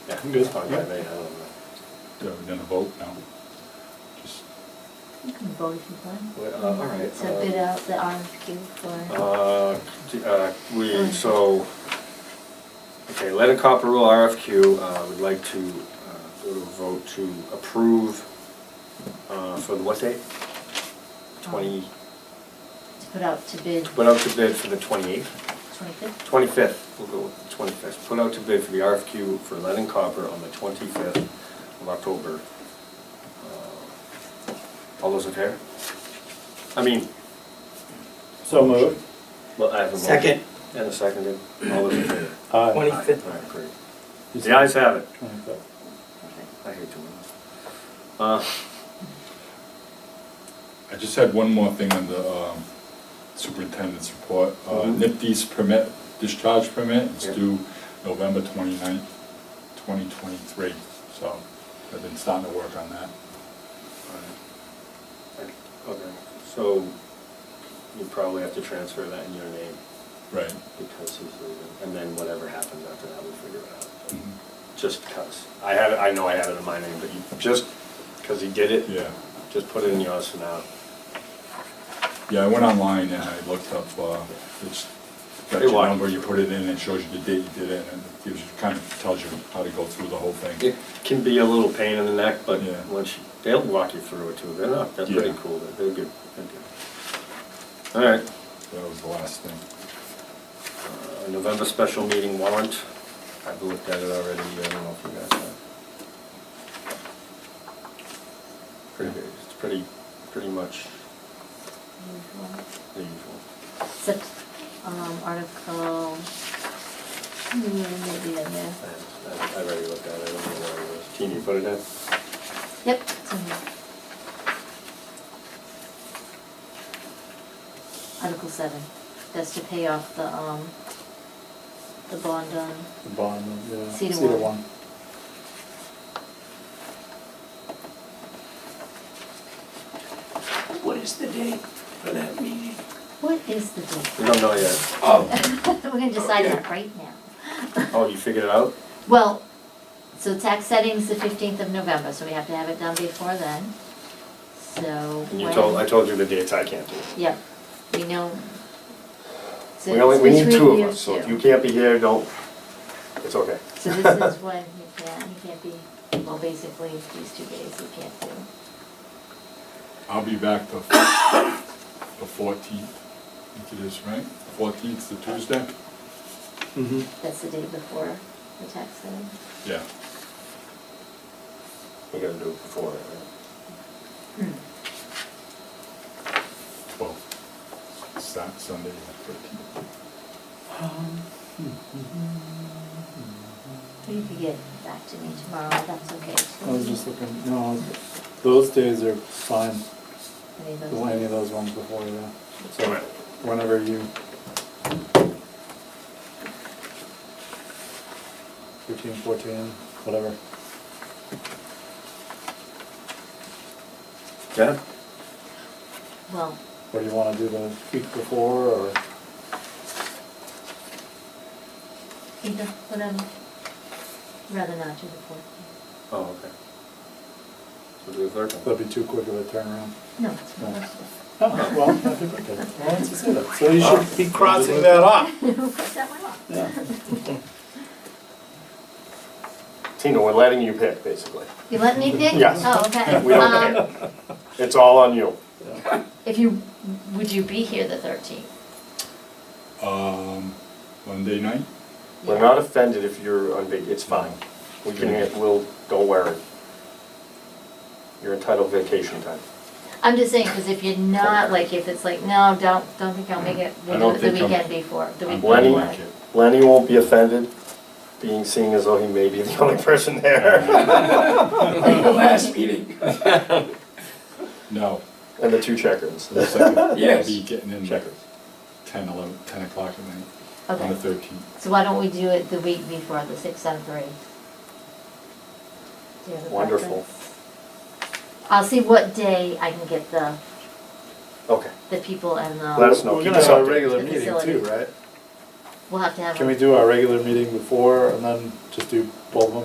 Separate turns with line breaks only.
Yeah, I'm good.
Fine by
Yeah.
me, I don't know.
Are we gonna vote now? Just,
You can vote if you want.
Well, uh, all right,
So bid
uh,
out the RFQ for,
Uh, d- uh, we, so, okay, letter copper rule RFQ, uh, we'd like to, uh, go to vote to approve, uh, for the what date? Twenty,
to put out to bid
put out to bid for the twenty-eighth?
twenty-fifth,
Twenty-fifth, we'll go with the twenty-fifth. Put out to bid for the RFQ for lead and copper on the twenty-fifth of October. Uh, All those in favor? I mean,
So moved.
well, I have a motion.
Second.
And a second, all those in favor?
Aye.
Twenty-fifth.
All right, great.
Is
The ayes have it.
Twenty-fifth.
I hate doing this. Uh,
I just had one more thing on the um, superintendent's report. Uh,
Mhm.
NIPD's permit, discharge permit is
Yeah.
due November 29th, 2023. So I've been starting to work on that.
Okay, so you probably have to transfer that in your name
Right.
because he's leaving, and then whatever happens after that, we'll figure it out.
Mhm.
Just because. I have, it. I know I have it in my name, but you, just because he did it,
Yeah.
just put it in yours for now.
Yeah, I went online and I looked up, uh, it's got
Hey,
your
why?
number, you put it in, and it shows you the date you did it, and it gives you, kind of tells you how to go through the whole
It
thing.
can be a little pain in the neck, but
Yeah.
once, you- they'll walk you through it too. They're not, they're pretty
Yeah.
cool. They're- They're good. They're good. All right.
That was the last thing.
Uh, November special meeting warrant. I've looked at it already, I don't know if you guys have. Pretty, big. it's pretty, pretty much
usual.
the usual.
Except, um, article, hmm, maybe in there.
I- I- I've already looked at it, I don't know where it was. Can you put it in?
Yep, it's in here. Article seven, that's to pay off the, um, the bond on,
The bond, yeah.
Cedar one.
What is the date for that meeting?
what is the date?
We don't know yet.
Oh,
We're gonna decide that right now.
Oh, you figured it out?
Well, so tax setting's the fifteenth of November, so we have to have it done before then, so.
And you
when-
told, I told you the dates I can't do.
Yep, we know. So
We only,
it's
we need
between
two of
you
us, so if
two.
you can't be here, don't, it's okay.
So this is when he can't, he can't be, well, basically, these two days he can't do.
I'll be back the, the fourteenth, I think it is, right? Fourteenth, the Tuesday?
Mm-hmm.
That's the day before the tax setting.
Yeah.
We gotta do it before, right?
Hmm.
Well, Sat, Sunday, the thirteenth.
Um, You could get back to me tomorrow, that's okay.
I was just looking, no, I was- those days are fine,
Any of those
Well, any of
days.
those ones before, yeah. So
Alright.
whenever you. Thirteen, fourteen, whatever.
Yeah?
Well,
What do you wanna do the week before or
either, but I'm rather not do the fourth.
Oh, okay. So do the third one.
that'd be too quick of a turnaround?
No, it's
No.
not. What's
Oh, well, I think I could. Well, let's just say that. So you
Ah.
should be
crossing that off.
that one off?
Yeah.
Tina, we're letting you pick, basically.
You let me pick?
Yes.
Oh, okay.
We don't
Um,
care. It's all on you.
If you, would you be here the thirteenth?
Um, Monday night?
We're not offended if you're on vac, it's fine. We can, we'll, don't worry. You're entitled vacation time.
I'm just saying, because if you're not, like, if it's like, no, don't, don't think I'll make it,
I
we'll
don't
do it the
think I'm-
weekend before, the
I'm
weekend.
gonna
before.
make it.
Lenny won't be offended, being seeing as though he may be the only person there.
the last meeting.
No,
And the two checkers.
the second, I'll
Yes.
be getting in like
Checkers.
ten, eleven, ten o'clock at night, on the
Okay,
thirteenth.
so why don't we do it the week before, the sixth, seventh, or eighth? Do you have a
Wonderful.
preference? I'll see what day I can get the,
Okay,
the people and
Let us
the,
know.
We're
keep
gonna have
updated.
a regular
The
meeting
facility.
too, right?
we'll have to have.
Can
a-
we do our regular meeting before and then just do both of them